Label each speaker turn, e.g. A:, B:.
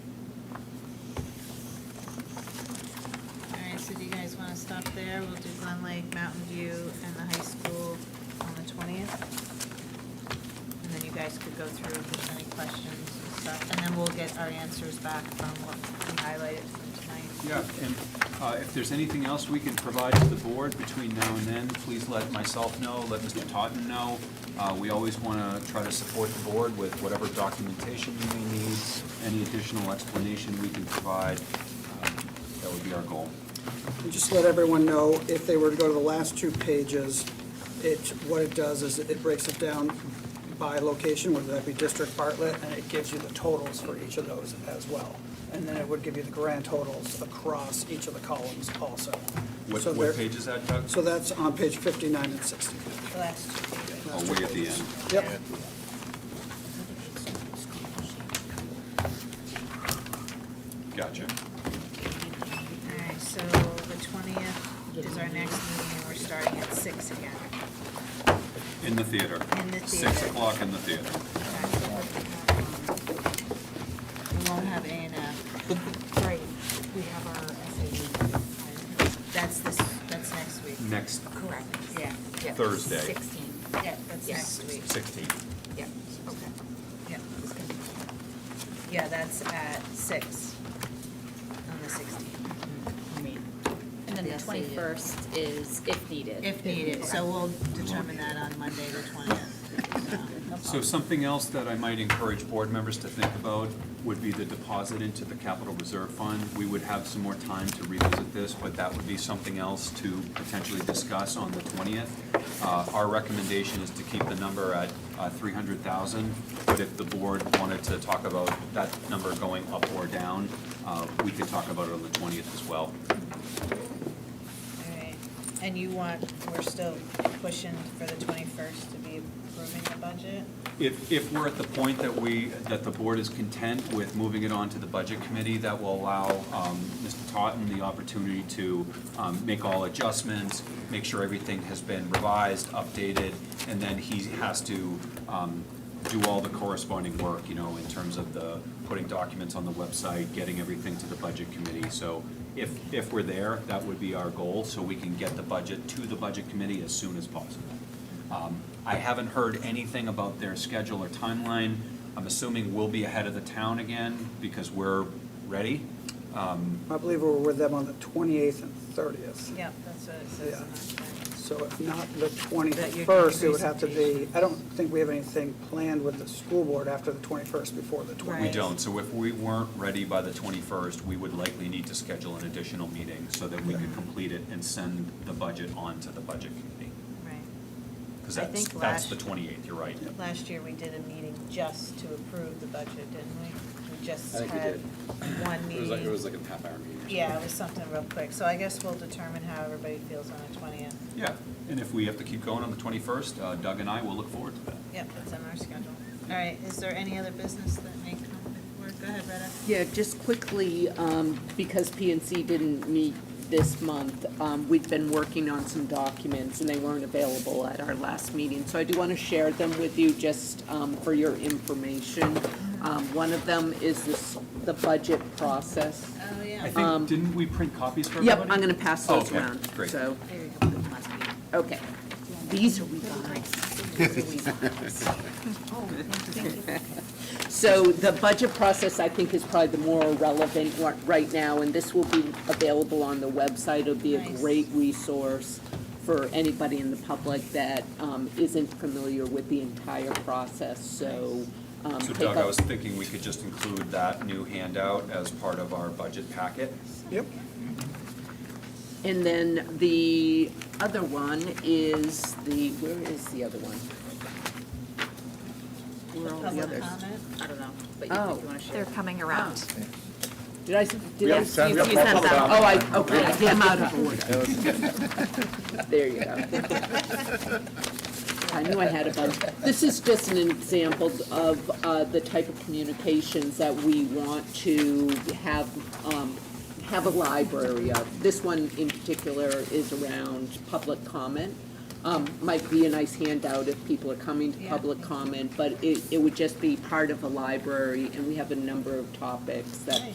A: there, we'll do Glen Lake, Mountain View, and the high school on the twentieth. And then you guys could go through if there's any questions and stuff, and then we'll get our answers back from what we highlighted from tonight.
B: Yeah, and uh, if there's anything else we can provide to the board between now and then, please let myself know, let Mr. Totten know. Uh, We always want to try to support the board with whatever documentation you may need, any additional explanation we can provide. um, That would be our goal.
C: And Just let everyone know, if they were to go to the last two pages, it, what it does is it breaks it down by location, whether that be District Bartlett, and it gives you the totals for each of those as well. And then it would give you the grand totals across each of the columns also.
B: What
C: So
B: what
C: there-
B: page is that, Doug?
C: So that's on page fifty-nine and sixty.
A: The last two pages.
B: Oh, way at the end.
C: Yep.
B: Gotcha.
A: All right, so the twentieth is our next meeting, and we're starting at six again.
B: In the theater.
A: In the
B: Six
A: theater.
B: o'clock in the theater.
A: We won't have uh, A and F.
D: Right, we have our SAU.
A: That's this, that's next week.
B: Next
D: Correct.
A: Yeah,
D: Yeah,
B: Thursday.
D: 16,
A: yeah, that's
D: Yes.
A: next week.
B: 16th.
D: yeah, okay.
A: Yeah,
D: It's gonna be-
A: yeah, that's at six on the sixteenth,
E: And then Mm-hmm. the
D: Yes, they do.
E: twenty-first is if needed.
A: uh, if needed. So we'll determine that on Monday, the twentieth.
B: So something else that I might encourage board members to think about would be the deposit into the capital reserve fund. We would have some more time to revisit this, but that would be something else to potentially discuss on the twentieth. Uh, Our recommendation is to keep the number at uh, three hundred thousand, but if the board wanted to talk about that number going up or down, uh, we could talk about it on the twentieth as well.
A: And you want, we're still pushing for the twenty-first to be approving the budget?
B: If, if we're at the point that we, that the board is content with moving it on to the budget committee, that will allow um, Mr. Totten the opportunity to um, make all adjustments, make sure everything has been revised, updated, and then he has to um, do all the corresponding work, you know, in terms of the, putting documents on the website, getting everything to the budget committee. So if, if we're there, that would be our goal, so we can get the budget to the budget committee as soon as possible. Um, I haven't heard anything about their schedule or timeline. I'm assuming we'll be ahead of the town again because we're ready.
C: I believe we were with them on the twenty-eighth and thirtieth.
A: Yeah, that's what it says on our plan.
C: So if not the
A: That your
C: 21st, it would have to be,
A: presentation.
C: I don't think we have anything planned with the school board after the 21st before the
A: Right.
B: We
C: 20th.
B: don't, so if we weren't ready by the 21st, we would likely need to schedule an additional meeting so that we could complete it and send the budget on to the budget committee.
A: Right.
B: Because
A: I
B: that's,
A: think last-
B: that's the 28th, you're right.
A: Last year, we did a meeting just to approve the budget, didn't we? We just
F: I think we
A: had
F: did.
A: one
F: It was like, it was
A: meeting.
F: like a half hour meeting. or something.
A: Yeah, it was something real quick, so I guess we'll determine how everybody feels on the twentieth.
B: Yeah, and if we have to keep going on the 21st, uh, Doug and I will look forward to that.
A: Yep, that's on our schedule. All right, is there any other business that may come forward? Go ahead, Retta.
G: Yeah, just quickly, um, because PNC didn't meet this month, um, we've been working on some documents, and they weren't available at our last meeting. So I do want to share them with you, just um, for your information.
A: Mm-hmm.
G: Um, One of them is this- the budget process.
A: Oh,
B: I
A: yeah.
B: think, didn't we print copies for everybody?
G: Yep, I'm going to pass those
B: Okay,
G: around.
B: great.
G: So,
E: There you go, last week.
G: okay. These are we guys. These are we guys. So the budget process, I think, is probably the more relevant one right now, and this will be available on the website. It'll be a
A: Nice.
G: great resource for anybody in the public that um, isn't familiar with the entire process, so. um,
B: So
G: take
B: Doug,
G: a-
B: I was thinking we could just include that new handout as part of our budget packet.
C: Yep.
G: And then the other one is the, where is the other one? Where are all the
A: Public
G: others?
A: comment?
E: I don't know, but you,
G: Oh.
E: you wanna share?
D: They're coming around.
G: Did I, did I?
F: have sent- we have
G: you sent
F: public
G: them. Oh,
F: comment.
G: I, okay, I am out of order. There you go. I knew I had a bunch. This is just an example of uh, the type of communications that we want to have, um, have a library of. This one in particular is around public comment. Um, Might be a nice handout if people are coming to
A: Yeah.
G: public comment, but it, it would just be part of a library, and we have a number of topics that